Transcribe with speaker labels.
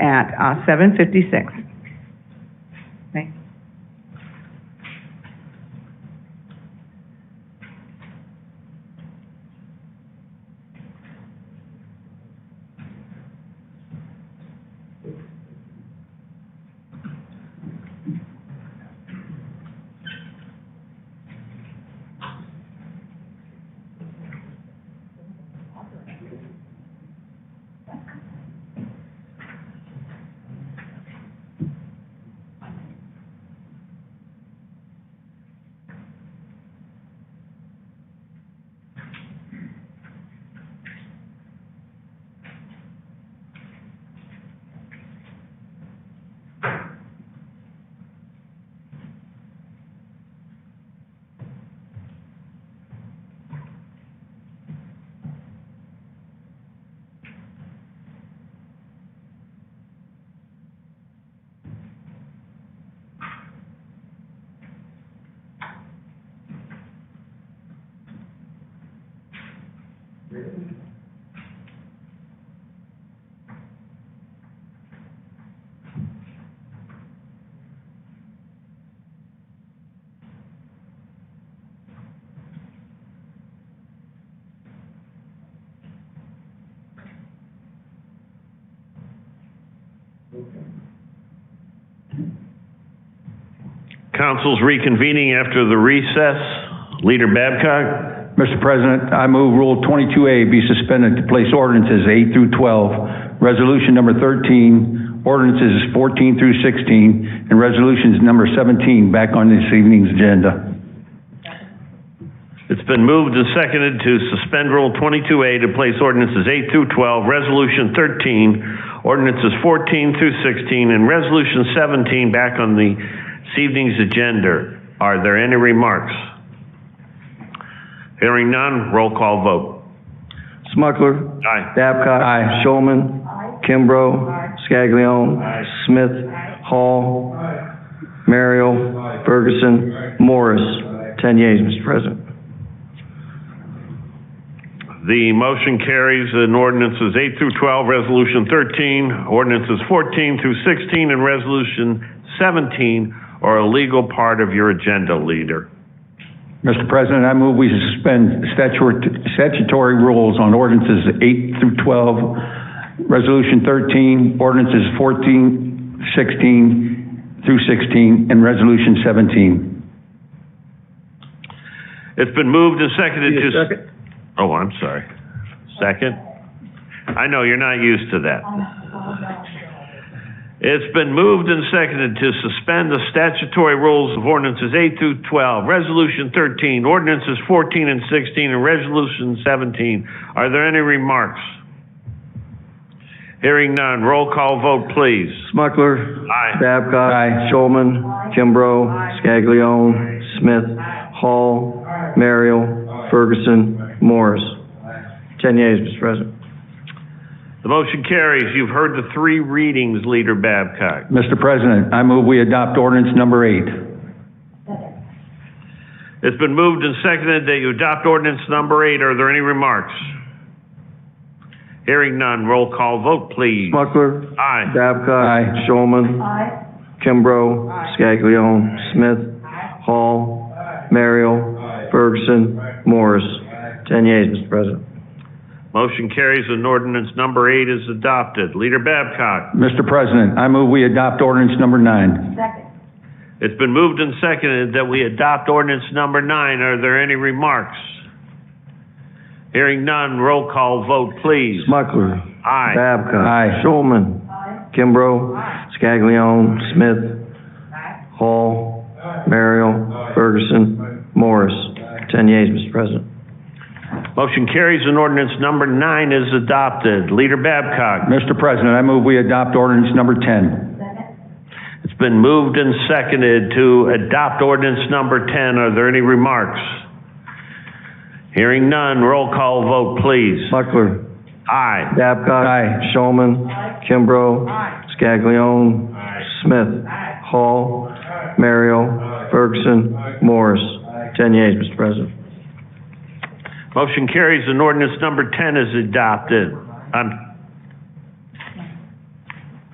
Speaker 1: at, uh, seven fifty-six. Okay.
Speaker 2: Council's reconvening after the recess. Leader Babcock?
Speaker 3: Mr. President, I move Rule 22A be suspended to place ordinances 8 through 12, Resolution Number 13, ordinances 14 through 16, and Resolutions Number 17 back on this evening's agenda.
Speaker 2: It's been moved and seconded to suspend Rule 22A to place ordinances 8 through 12, Resolution 13, ordinances 14 through 16, and Resolution 17 back on the this evening's agenda. Are there any remarks? Hearing none, roll call vote.
Speaker 4: Smucker.
Speaker 2: Aye.
Speaker 4: Babcock.
Speaker 3: Aye.
Speaker 4: Showman. Kimbrough. Scaglione. Smith. Hall. Merrill. Ferguson. Morris. Ten yeas, Mr. President.
Speaker 2: The motion carries and ordinances 8 through 12, Resolution 13, ordinances 14 through 16, and Resolution 17 are a legal part of your agenda, leader.
Speaker 3: Mr. President, I move we suspend statutory statutory rules on ordinances 8 through 12, Resolution 13, ordinances 14, 16 through 16, and Resolution 17.
Speaker 2: It's been moved and seconded to... Oh, I'm sorry. Second? I know, you're not used to that. It's been moved and seconded to suspend the statutory rules of ordinances 8 through 12, Resolution 13, ordinances 14 and 16, and Resolution 17. Are there any remarks? Hearing none, roll call vote, please.
Speaker 4: Smucker.
Speaker 2: Aye.
Speaker 4: Babcock.
Speaker 3: Aye.
Speaker 4: Showman. Kimbrough. Scaglione. Smith. Hall. Merrill. Ferguson. Morris. Ten yeas, Mr. President.
Speaker 2: The motion carries. You've heard the three readings, Leader Babcock.
Speaker 3: Mr. President, I move we adopt ordinance number eight.
Speaker 2: It's been moved and seconded that you adopt ordinance number eight. Are there any remarks? Hearing none, roll call vote, please.
Speaker 4: Smucker.
Speaker 2: Aye.
Speaker 4: Babcock.
Speaker 3: Aye.
Speaker 4: Showman. Kimbrough. Scaglione. Smith. Hall. Merrill. Ferguson. Morris. Ten yeas, Mr. President.
Speaker 2: Motion carries and ordinance number eight is adopted. Leader Babcock.
Speaker 3: Mr. President, I move we adopt ordinance number nine.
Speaker 2: It's been moved and seconded that we adopt ordinance number nine. Are there any remarks? Hearing none, roll call vote, please.
Speaker 4: Smucker.
Speaker 2: Aye.
Speaker 4: Babcock.
Speaker 3: Aye.
Speaker 4: Showman. Kimbrough. Scaglione. Smith. Hall. Merrill. Ferguson. Morris. Ten yeas, Mr. President.
Speaker 2: Motion carries and ordinance number nine is adopted. Leader Babcock.
Speaker 3: Mr. President, I move we adopt ordinance number 10.
Speaker 2: It's been moved and seconded to adopt ordinance number 10. Are there any remarks? Hearing none, roll call vote, please.
Speaker 4: Smucker.
Speaker 2: Aye.
Speaker 4: Babcock.
Speaker 3: Aye.
Speaker 4: Showman. Kimbrough. Scaglione. Smith. Hall. Merrill. Ferguson. Morris. Ten yeas, Mr. President.
Speaker 2: Motion carries and ordinance number 10 is adopted. Um,